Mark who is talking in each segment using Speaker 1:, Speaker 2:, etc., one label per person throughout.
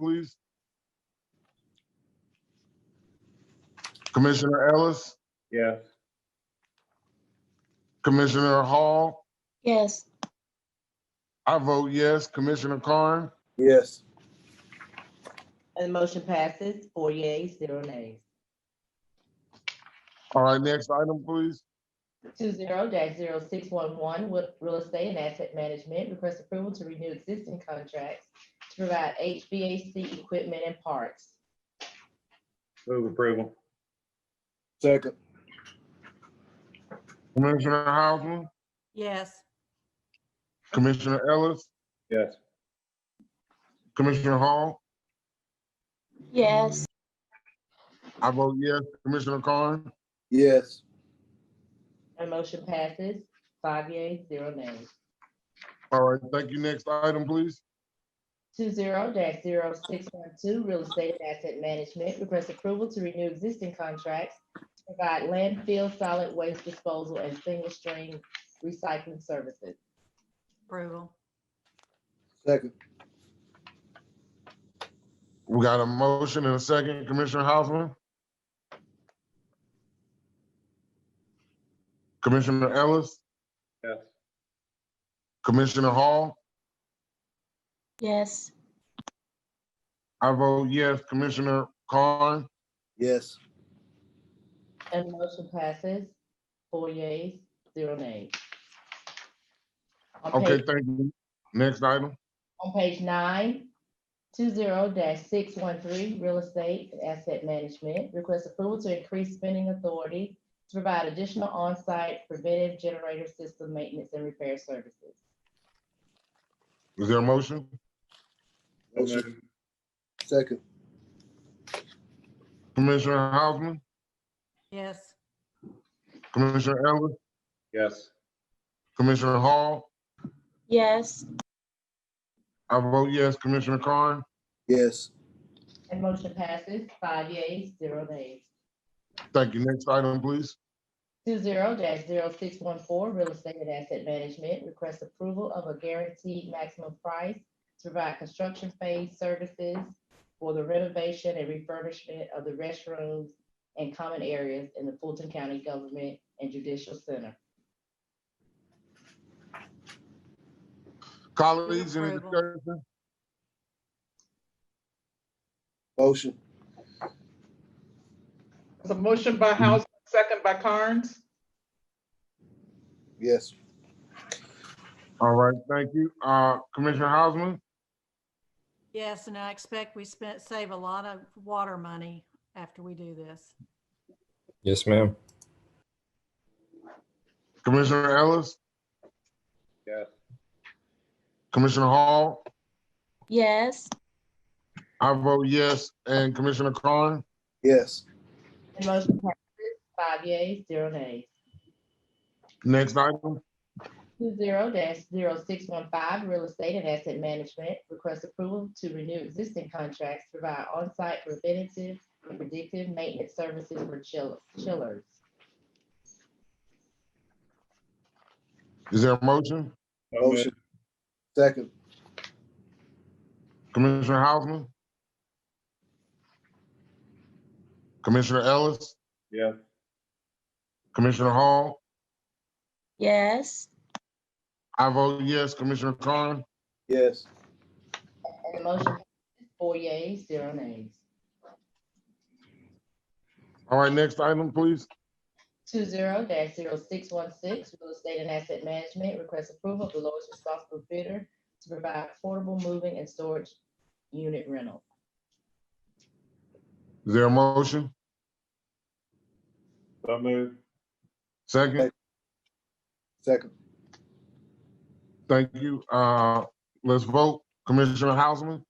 Speaker 1: please? Commissioner Ellis,
Speaker 2: Yes.
Speaker 1: Commissioner Hall,
Speaker 3: Yes.
Speaker 1: I vote yes. Commissioner Carn,
Speaker 2: Yes.
Speaker 4: And the motion passes, four yeas, zero nays.
Speaker 1: all right, next item, please.
Speaker 4: Two zero dash zero six one one with real estate and asset management, request approval to renew existing contracts to provide HVAC equipment and parts.
Speaker 2: Move approval.
Speaker 5: Second,
Speaker 1: Commissioner Hausman,
Speaker 6: yes,
Speaker 1: Commissioner Ellis,
Speaker 2: Yes.
Speaker 1: Commissioner Hall,
Speaker 3: Yes.
Speaker 1: I vote yes. Commissioner Carn,
Speaker 5: yes.
Speaker 4: And motion passes, five yeas, zero nays.
Speaker 1: all right, thank you. Next item, please.
Speaker 4: Two zero dash zero six one two, real estate and asset management, request approval to renew existing contracts to provide landfill solid waste disposal and single stream recycling services.
Speaker 6: approval,
Speaker 5: Second,
Speaker 1: We got a motion and a second. Commissioner Hausman. Commissioner Ellis,
Speaker 2: Yes.
Speaker 1: Commissioner Hall,
Speaker 3: Yes.
Speaker 1: I vote yes. Commissioner Carn,
Speaker 5: yes.
Speaker 4: And the motion passes, four yeas, zero nays. On
Speaker 1: okay,
Speaker 4: page-
Speaker 1: thank you. Next item.
Speaker 4: On page nine, two zero six one three, real estate and asset management, request approval to increase spending authority to provide additional on-site preventive generator system maintenance and repair services.
Speaker 1: Is there a motion?
Speaker 5: Motion. Second,
Speaker 1: Commissioner Hausman,
Speaker 6: yes,
Speaker 1: Commissioner Ellis,
Speaker 2: Yes.
Speaker 1: Commissioner Hall,
Speaker 3: Yes.
Speaker 1: I vote yes. Commissioner Carn,
Speaker 5: yes.
Speaker 4: And motion passes, five yeas, zero nays.
Speaker 1: thank you. Next item, please.
Speaker 4: Two zero dash zero six one four, real estate and asset management, request approval of a guaranteed maximum price to provide construction phase services for the renovation and refurbishment of the restrooms and common areas in the Fulton County Government and Judicial Center.
Speaker 1: Colleagues, any
Speaker 6: Approval.
Speaker 1: discussion?
Speaker 5: Motion,
Speaker 7: It's a motion by House, second by Carnes.
Speaker 5: yes.
Speaker 1: All right, thank you. Uh, Commissioner Hausman,
Speaker 6: yes, and I expect we spent, save a lot of water money after we do this.
Speaker 8: Yes, ma'am.
Speaker 1: Commissioner Ellis,
Speaker 2: Yes.
Speaker 1: Commissioner Hall,
Speaker 3: Yes.
Speaker 1: I vote yes, and Commissioner Carn.
Speaker 5: Yes.
Speaker 4: And motion passes, five yeas, zero nays.
Speaker 1: Next item,
Speaker 4: Two zero dash zero six one five, real estate and asset management, request approval to renew existing contracts, to provide on-site preventative and predictive maintenance services for chill- chillers.
Speaker 1: is there a motion?
Speaker 2: So moved.
Speaker 5: Motion. Second,
Speaker 1: Commissioner Hausman? Commissioner Ellis,
Speaker 2: Yes.
Speaker 1: Commissioner Hall,
Speaker 3: Yes.
Speaker 1: I vote yes, Commissioner Carn.
Speaker 5: yes.
Speaker 4: And the motion, passes, four yeas, zero nays.
Speaker 1: All right, next item, please.
Speaker 4: Two zero dash zero six one six, real estate and asset management, request approval of the lowest responsible bidder to provide affordable moving and storage unit rental.
Speaker 1: Is there a motion?
Speaker 2: So moved.
Speaker 1: Second,
Speaker 5: Second,
Speaker 1: thank you. Uh, let's vote. Commissioner Hausman,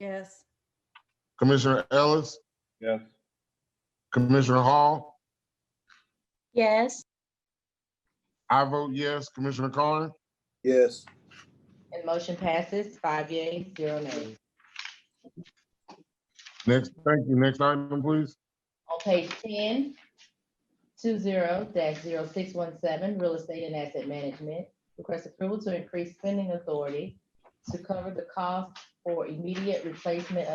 Speaker 6: Yes,
Speaker 1: Commissioner Ellis,
Speaker 2: Yes.
Speaker 1: Commissioner Hall,
Speaker 3: Yes.
Speaker 1: I vote yes, Commissioner Carn.
Speaker 5: yes.
Speaker 4: And motion passes, five yeas, zero nays.
Speaker 1: Next, thank you. Next item, please.
Speaker 4: On page ten, two zero dash zero six one seven, real estate and asset management, request approval to increase spending authority to cover the cost for immediate replacement of